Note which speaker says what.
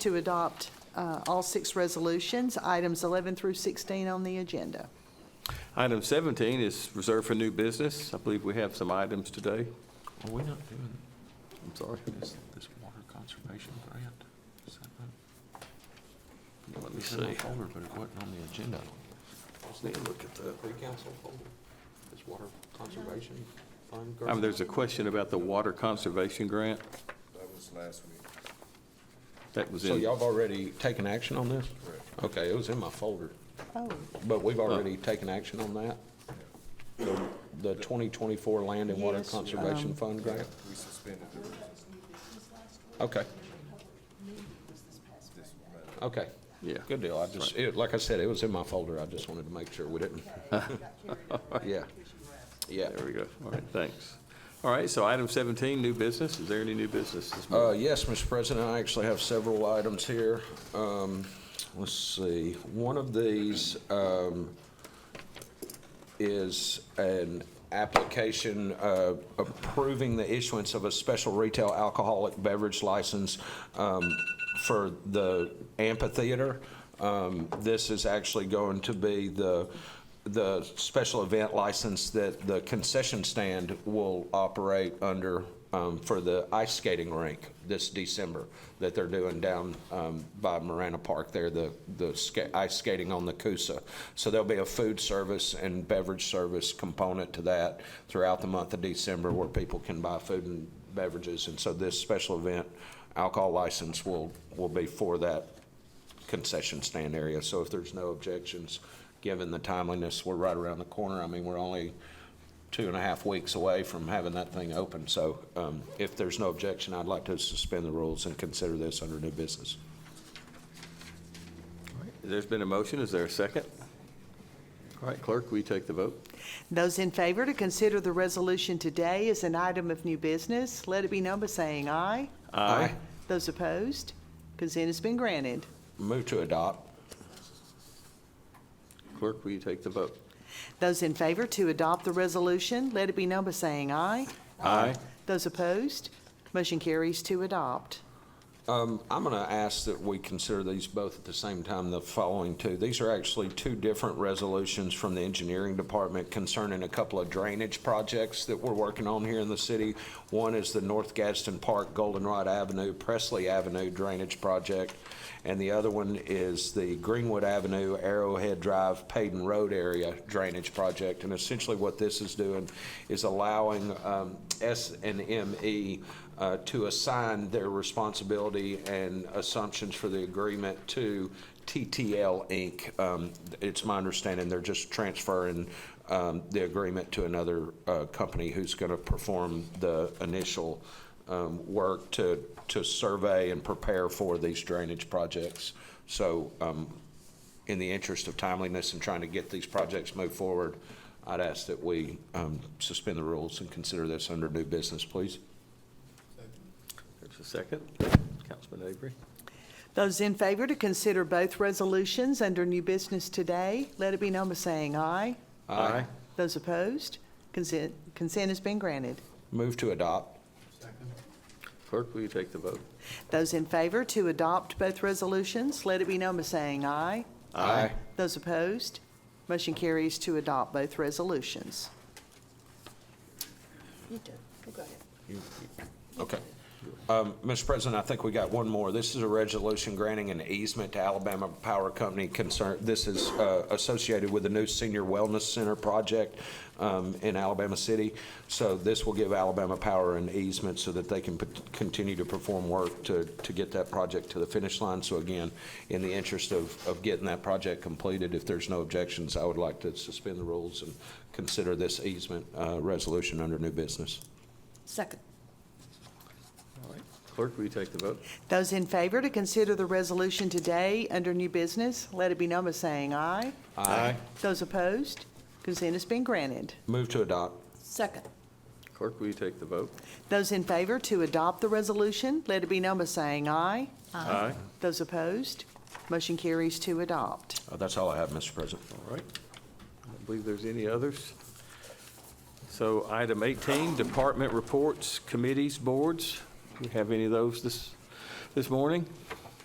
Speaker 1: to adopt uh, all six resolutions, items 11 through 16 on the agenda.
Speaker 2: Item 17 is reserved for new business. I believe we have some items today.
Speaker 3: Are we not doing
Speaker 2: I'm sorry.
Speaker 3: this, this water conservation grant? Is that not-
Speaker 2: Let me
Speaker 3: It's in my
Speaker 2: see.
Speaker 3: folder, but it wasn't on the agenda.
Speaker 2: Just need to look at that.
Speaker 3: Pre-council folder, this water conservation fund
Speaker 2: Um, There's a question about the water conservation grant.
Speaker 4: That was last week.
Speaker 2: That was
Speaker 3: So
Speaker 2: in,
Speaker 3: y'all have already taken action on this? Okay, it was in my folder,
Speaker 1: Oh,
Speaker 3: but we've already taken action on that? The 2024 Land and Water
Speaker 1: Yes,
Speaker 3: Conservation
Speaker 1: um,
Speaker 3: Fund grant?
Speaker 4: We suspended the rules
Speaker 3: Okay,
Speaker 4: this month.
Speaker 3: okay.
Speaker 2: yeah.
Speaker 3: Good deal. I just, it, like I said, it was in my folder. I just wanted to make sure we didn't. Yeah. Yeah.
Speaker 2: There we go. All right, thanks. All right, so item 17, new business. Is there any new business this morning?
Speaker 3: Uh, yes, Mr. President, I actually have several items here. Um, let's see, one of these, um, is an application, uh, approving the issuance of a special retail alcoholic beverage license, um, for the amphitheater. Um, this is actually going to be the, the special event license that the concession stand will operate under um, for the ice skating rink this December that they're doing down um, by Marana Park there, the, the ska- ice skating on the Coosa. So there'll be a food service and beverage service component to that throughout the month of December where people can buy food and beverages. And so this special event alcohol license will, will be for that concession stand area. So if there's no objections, given the timeliness, we're right around the corner. I mean, we're only two and a half weeks away from having that thing open. So um, if there's no objection, I'd like to suspend the rules and consider this under new business.
Speaker 2: There's been a motion. Is there a second? All right, clerk, will you take the vote?
Speaker 1: Those in favor to consider the resolution today as an item of new business, let it be known by saying aye.
Speaker 3: Aye.
Speaker 1: Those opposed, consent has been granted.
Speaker 3: Move to adopt.
Speaker 2: Clerk, will you take the vote?
Speaker 1: Those in favor to adopt the resolution, let it be known by saying aye.
Speaker 2: Aye.
Speaker 1: Those opposed, motion carries to adopt.
Speaker 3: Um, I'm going to ask that we consider these both at the same time, the following two. These are actually two different resolutions from the engineering department concerning a couple of drainage projects that we're working on here in the city. One is the North Gadsden Park, Goldenrod Avenue, Presley Avenue Drainage Project. And the other one is the Greenwood Avenue, Arrowhead Drive, Payden Road Area Drainage Project. And essentially what this is doing is allowing um, S and ME uh, to assign their responsibility and assumptions for the agreement to TTL Inc. Um, It's my understanding they're just transferring um, the agreement to another uh, company who's going to perform the initial um, work to, to survey and prepare for these drainage projects. So um, in the interest of timeliness and trying to get these projects moved forward, I'd ask that we um, suspend the rules and consider this under new business, please.
Speaker 2: There's a second. Councilman Avery?
Speaker 1: Those in favor to consider both resolutions under new business today, let it be known by saying aye.
Speaker 3: Aye.
Speaker 1: Those opposed, consent, consent has been granted.
Speaker 3: Move to adopt.
Speaker 2: Clerk, will you take the vote?
Speaker 1: Those in favor to adopt both resolutions, let it be known by saying aye.
Speaker 3: Aye.
Speaker 1: Those opposed, motion carries to adopt both resolutions.
Speaker 5: You do. You go ahead.
Speaker 3: Okay. Um, Mr. President, I think we got one more. This is a resolution granting an easement to Alabama Power Company concern, this is uh, associated with the new Senior Wellness Center project um, in Alabama City. So this will give Alabama Power an easement so that they can put- continue to perform work to, to get that project to the finish line. So again, in the interest of, of getting that project completed, if there's no objections, I would like to suspend the rules and consider this easement uh, resolution under new business.
Speaker 5: Second.
Speaker 2: All right, clerk, will you take the vote?
Speaker 1: Those in favor to consider the resolution today under new business, let it be known by saying aye.
Speaker 3: Aye.
Speaker 1: Those opposed, consent has been granted.
Speaker 3: Move to adopt.
Speaker 5: Second.
Speaker 2: Clerk, will you take the vote?
Speaker 1: Those in favor to adopt the resolution, let it be known by saying aye.
Speaker 2: Aye.
Speaker 1: Those opposed, motion carries to adopt.
Speaker 3: Uh, That's all I have, Mr. President.
Speaker 2: All right. I don't believe there's any others. So item 18, department reports, committees, boards. Do we have any of those this, this morning?